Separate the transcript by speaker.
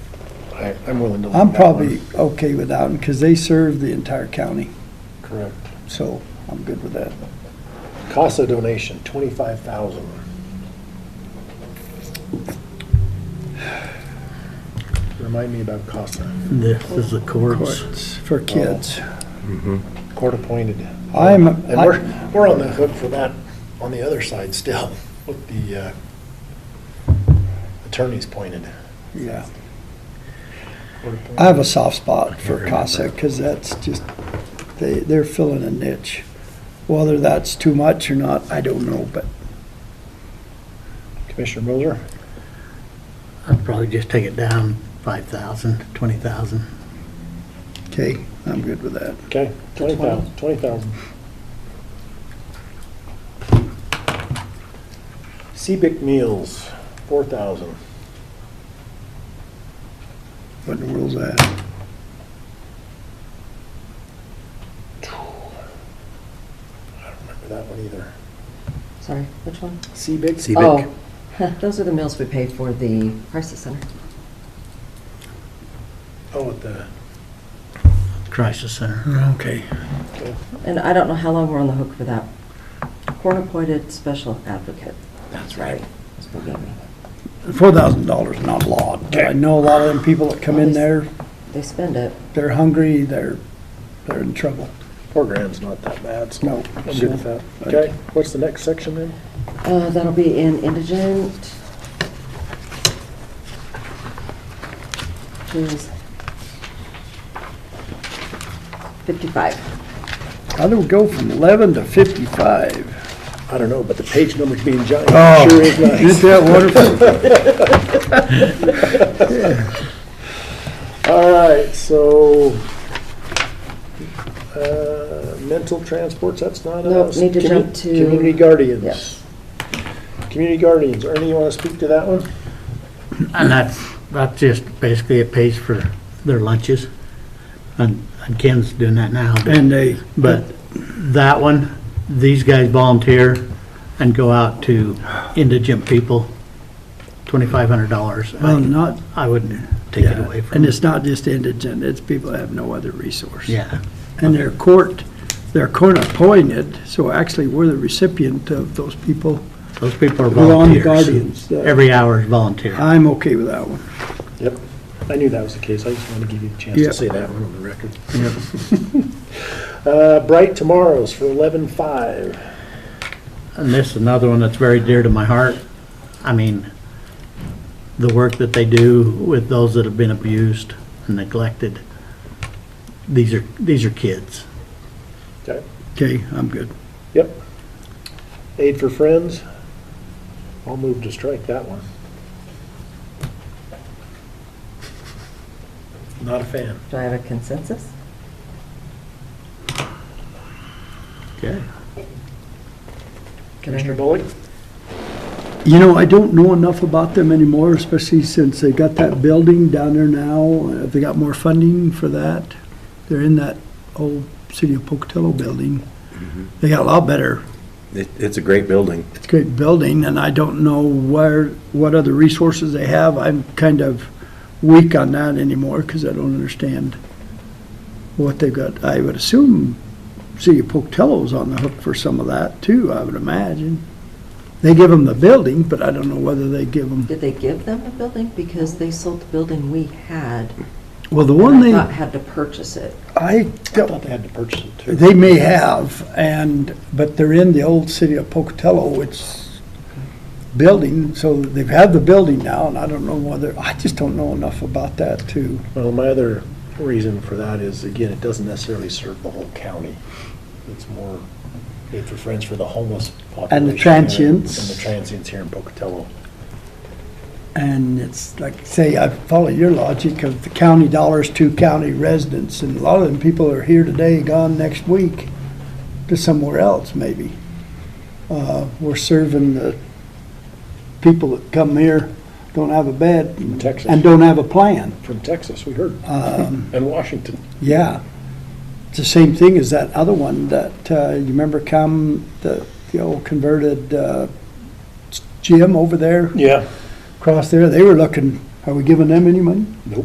Speaker 1: I- I'm willing to. leave
Speaker 2: I'm
Speaker 1: that one.
Speaker 2: probably okay with that, because they serve the entire county,
Speaker 1: Correct.
Speaker 2: so I'm good with that.
Speaker 1: CASA donation, twenty-five thousand. Remind me about CASA,
Speaker 3: This is the courts.
Speaker 2: Courts Oh. For kids.
Speaker 1: court-appointed.
Speaker 2: I'm,
Speaker 1: And we're, we're on the hook for that on the other side still, with the uh, attorneys pointed.
Speaker 2: yeah,
Speaker 1: Court appointed.
Speaker 2: I have a soft spot for CASA, because that's just, they, they're filling a niche. Whether that's too much or not, I don't know, but
Speaker 1: Commissioner Moser,
Speaker 3: I'd probably just take it down five thousand, twenty thousand.
Speaker 2: Okay, I'm good with that.
Speaker 1: okay, twenty thousand, twenty thousand. Seabic meals, four thousand.
Speaker 2: What in the world's that?
Speaker 1: I don't remember that one either.
Speaker 4: Sorry, which one?
Speaker 1: Seabic?
Speaker 3: CBIC.
Speaker 4: Oh, those are the meals we pay for the crisis center.
Speaker 1: Oh, with the,
Speaker 3: Crisis Center.
Speaker 2: Okay.
Speaker 4: And I don't know how long we're on the hook for that. Court-appointed special advocate. That's right.
Speaker 2: Four thousand dollars, not a lot. I know a lot of them people that come in there,
Speaker 4: They spend it.
Speaker 2: they're hungry, they're, they're in trouble.
Speaker 1: four grand's not that bad, so
Speaker 2: No.
Speaker 1: I'm good with that. Okay, what's the next section then?
Speaker 4: Uh, That'll be in indigent. Jeez. 55.
Speaker 2: How do we go from eleven to fifty-five?
Speaker 1: I don't know, but the page number's being giant.
Speaker 2: Oh,
Speaker 1: Sure is nice.
Speaker 2: Isn't that wonderful?
Speaker 1: All right, so, uh, mental transports, that's not
Speaker 4: Nope,
Speaker 1: us.
Speaker 4: need to
Speaker 1: Commu-
Speaker 4: jump to-
Speaker 1: Community guardians.
Speaker 4: Yes.
Speaker 1: Community guardians, Ernie, you want to speak to that one?
Speaker 3: And that's, that's just basically it pays for their lunches. And and Ken's doing that now. but-
Speaker 2: And they,
Speaker 3: But that one, these guys volunteer and go out to indigent people, twenty-five hundred dollars.
Speaker 2: well, not,
Speaker 3: I wouldn't take it away from
Speaker 2: and
Speaker 3: them.
Speaker 2: it's not just indigent, it's people that have no other resource.
Speaker 3: Yeah,
Speaker 2: And they're court, they're court appointed, so actually we're the recipient of those people.
Speaker 3: those people are
Speaker 2: We're on the
Speaker 3: volunteers.
Speaker 2: guardians, uh,
Speaker 3: Every hour is volunteer.
Speaker 2: I'm okay with that one.
Speaker 1: Yep. I knew that was the case, I just wanted to give you a chance
Speaker 2: Yeah.
Speaker 1: to say that one on the record. Uh, Bright Tomorrows for eleven-five.
Speaker 3: And this is another one that's very dear to my heart. I mean, the work that they do with those that have been abused and neglected. These are, these are kids.
Speaker 1: Okay,
Speaker 2: Okay, I'm good.
Speaker 1: yep. Aid for Friends, I'll move to strike that one. Not a fan.
Speaker 4: Do I have a consensus?
Speaker 3: Okay.
Speaker 4: Can I
Speaker 1: Commissioner
Speaker 4: hear-
Speaker 1: Bullock?
Speaker 2: You know, I don't know enough about them anymore, especially since they got that building down there now. Have they got more funding for that? They're in that old City of Pocatello building. They got a lot better.
Speaker 5: Mm-hmm. It, it's a great building.
Speaker 2: It's a great building, and I don't know where, what other resources they have. I'm kind of weak on that anymore because I don't understand what they've got. I would assume City of Pocatello's on the hook for some of that too, I would imagine. They give them the building, but I don't know whether they give them
Speaker 4: Did they give them the building? Because they sold the building we had.
Speaker 2: Well, the one
Speaker 4: and I
Speaker 2: they,
Speaker 4: thought had to purchase it.
Speaker 2: I
Speaker 1: I
Speaker 2: don't,
Speaker 1: thought they had to purchase it too.
Speaker 2: they may have, and, but they're in the old city of Pocatello, which building, so they've had the building now, and I don't know whether, I just don't know enough about that too.
Speaker 1: Well, my other reason for that is, again, it doesn't necessarily serve the whole county. It's more Aid for Friends for the homeless population. here
Speaker 2: transients.
Speaker 1: And the transients here in Pocatello.
Speaker 2: And it's like, say, I follow your logic of the county dollars to county residents, and a lot of them people are here today, gone next week to somewhere else maybe. Uh, we're serving the people that come here, don't have a bed.
Speaker 1: From Texas.
Speaker 2: And don't have a plan.
Speaker 1: From Texas, we heard. And Washington.
Speaker 2: Yeah. It's the same thing as that other one that, uh, you remember come, the, the old converted, uh, gym over there,
Speaker 1: Yeah.
Speaker 2: across there, they were looking, are we giving them any money?